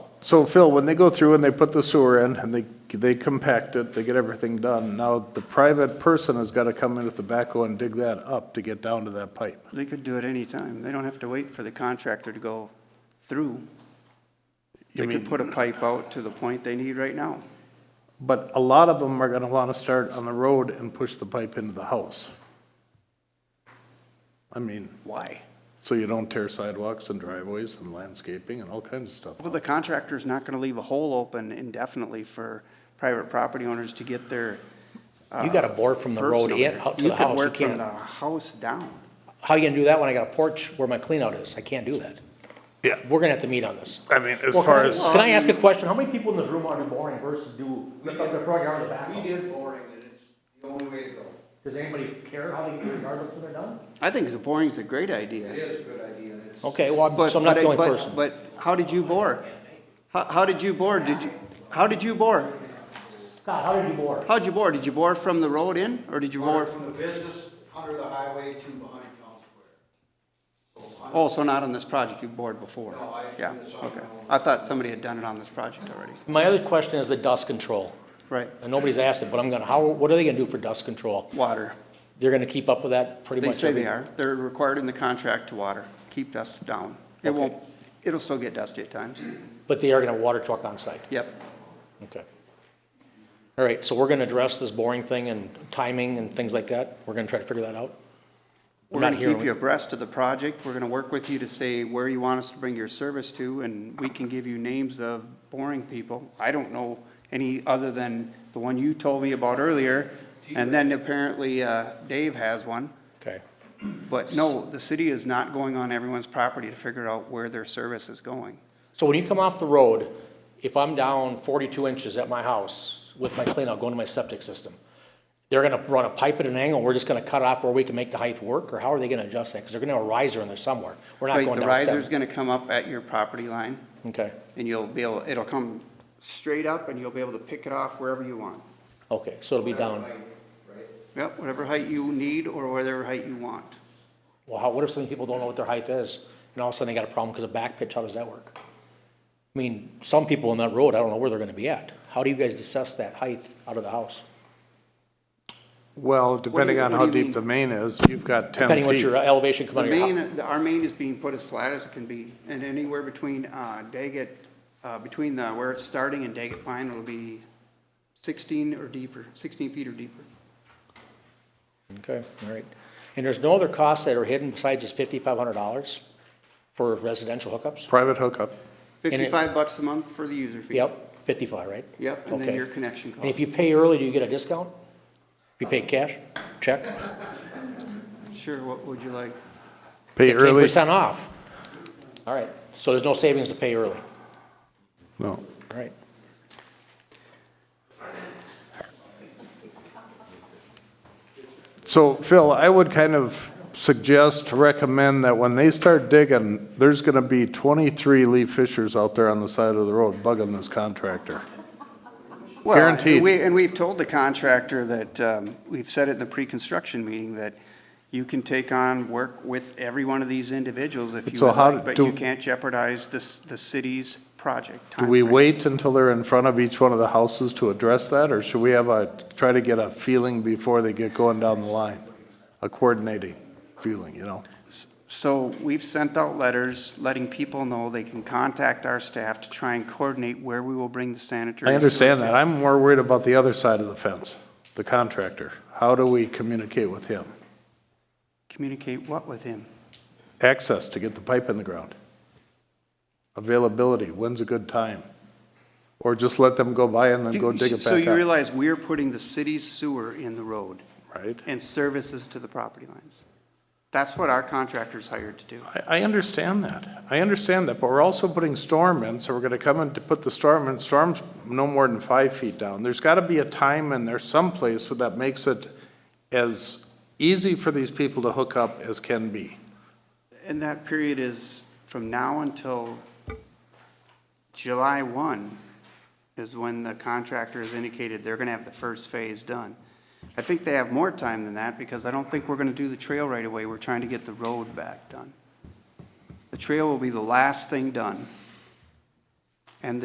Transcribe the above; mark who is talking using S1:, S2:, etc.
S1: So Phil, when they go through and they put the sewer in and they, they compact it, they get everything done, now the private person has got to come in with the backhoe and dig that up to get down to that pipe.
S2: They could do it any time. They don't have to wait for the contractor to go through.
S1: You
S2: They
S1: mean,
S2: could put a pipe out to the point they need right now.
S1: but a lot of them are going to want to start on the road and push the pipe into the house. I mean,
S2: Why?
S1: so you don't tear sidewalks and driveways and landscaping and all kinds of stuff.
S2: Well, the contractor's not gonna leave a hole open indefinitely for private property owners to get their.
S3: You gotta bore from the road in, out to the house, you
S2: You can work from the
S3: can't.
S2: house down.
S3: How you gonna do that when I got a porch where my cleanout is? I can't do that.
S1: Yeah,
S3: We're gonna have to meet on this.
S1: I mean, as
S3: Well, can I- Can I ask a question? How many people in this room are do boring versus do, like the front yard and the back?
S4: We did boring, and it's the only way to go.
S3: Does anybody care how they get their yard up when they're done?
S2: I think the boring's a great
S4: It
S2: idea.
S4: is a good idea, and it's.
S3: Okay, well, I'm-
S2: But-
S3: so I'm not
S2: but-
S3: the only
S2: but-
S3: person.
S2: But how did you bore? How, how did you bore? Did you, how did you bore?
S3: Scott, how did you bore?
S2: How'd you bore? Did you bore from the road in, or did you bore?
S4: From the business under the highway to behind Town Square. So, on-
S2: Oh, so not on this project, you bored before?
S4: No, I did
S2: Yeah,
S4: this on
S2: okay.
S4: my own.
S2: I thought somebody had done it on this project already.
S3: My other question is the dust control.
S2: Right,
S3: And nobody's asked it, but I'm gonna, how, what are they gonna do for dust control?
S2: water.
S3: They're gonna keep up with that pretty
S2: They
S3: much
S2: say
S3: every?
S2: they are. They're required in the contract to water, keep dust down. It
S3: Okay.
S2: won't, it'll still get dusty at times.
S3: But they are gonna water truck on site?
S2: Yep.
S3: Okay. All right, so we're gonna address this boring thing and timing and things like that? We're gonna try to figure that out?
S2: We're
S3: not
S2: going to keep
S3: hearing-
S2: you abreast of the project. We're going to work with you to say where you want us to bring your service to, and we can give you names of boring people. I don't know any other than the one you told me about earlier, and then apparently uh, Dave has one.
S3: Okay.
S2: But no, the city is not going on everyone's property to figure out where their service is going.
S3: So when you come off the road, if I'm down forty-two inches at my house with my cleanout going to my septic system, they're gonna run a pipe at an angle, we're just gonna cut off where we can make the height work, or how are they gonna adjust that? Because they're gonna have a riser in there somewhere. We're not
S2: Right,
S3: going
S2: the
S3: down
S2: riser's
S3: seven.
S2: going to come up at your property line,
S3: Okay,
S2: and you'll be able, it'll come straight up, and you'll be able to pick it off wherever you want.
S3: okay, so it'll be down.
S4: Right?
S2: Yep, whatever height you need or whatever height you want.
S3: Well, how, what if some people don't know what their height is, and all of a sudden they got a problem because of back pitch, how does that work? I mean, some people on that road, I don't know where they're gonna be at. How do you guys assess that height out of the house?
S1: Well, depending on
S2: what
S1: how
S2: do
S1: deep
S2: you mean?
S1: the main is, you've got ten feet.
S3: Depending what your uh, elevation come
S2: The
S3: out of your house.
S2: main, our main is being put as flat as it can be, and anywhere between, uh, Daggett, uh, between the, where it's starting and Daggett Pine, it'll be sixteen or deeper, sixteen feet or deeper.
S3: Okay, all right. And there's no other costs that are hidden besides this fifty-five hundred dollars for residential hookups?
S1: Private hookup.
S3: it-
S2: Fifty-five bucks a month for the user fee.
S3: Yep, fifty-five, right?
S2: Yep, and then
S3: Okay.
S2: your connection
S3: And if
S2: cost.
S3: you pay early, do you get a discount? If you pay cash, check,
S2: Sure, what would you like?
S1: Pay
S3: fifteen
S1: early.
S3: percent off. All right, so there's no savings to pay early,
S1: No.
S3: all right.
S1: So Phil, I would kind of suggest, recommend that when they start digging, there's going to be 23 Lee Fishers out there on the side of the road bugging this contractor.
S2: Well,
S1: Guaranteed.
S2: we- And we've told the contractor that, um, we've said it in the pre-construction meeting, that you can take on work with every one of these individuals if you
S1: So
S2: would
S1: how
S2: like, but
S1: do-
S2: you can't jeopardize this, the city's project
S1: Do we
S2: timeframe.
S1: wait until they're in front of each one of the houses to address that, or should we have a, try to get a feeling before they get going down the line? A coordinating feeling, you know?
S2: So we've sent out letters letting people know they can contact our staff to try and coordinate where we will bring the sanitary.
S1: I understand
S2: sewer
S1: that. I'm more worried about the other side of the fence, the contractor. How do we communicate with him?
S2: to Communicate what with him?
S1: Access to get the pipe in the ground. Availability, when's a good time? Or just let them go by and then go dig it
S2: So
S1: back
S2: you
S1: up,
S2: realize we're putting the city's sewer in the road
S1: right?
S2: and services to the property lines. That's what our contractor's hired to do.
S1: I, I understand that. I understand that, but we're also putting storm in, so we're gonna come in to put the storm in. Storm's no more than five feet down. There's gotta be a time in there someplace where that makes it as easy for these people to hook up as can be.
S2: And that period is from now until July 1 is when the contractor has indicated they're going to have the first phase done. I think they have more time than that because I don't think we're going to do the trail right away. We're trying to get the road back done. The trail will be the last thing done.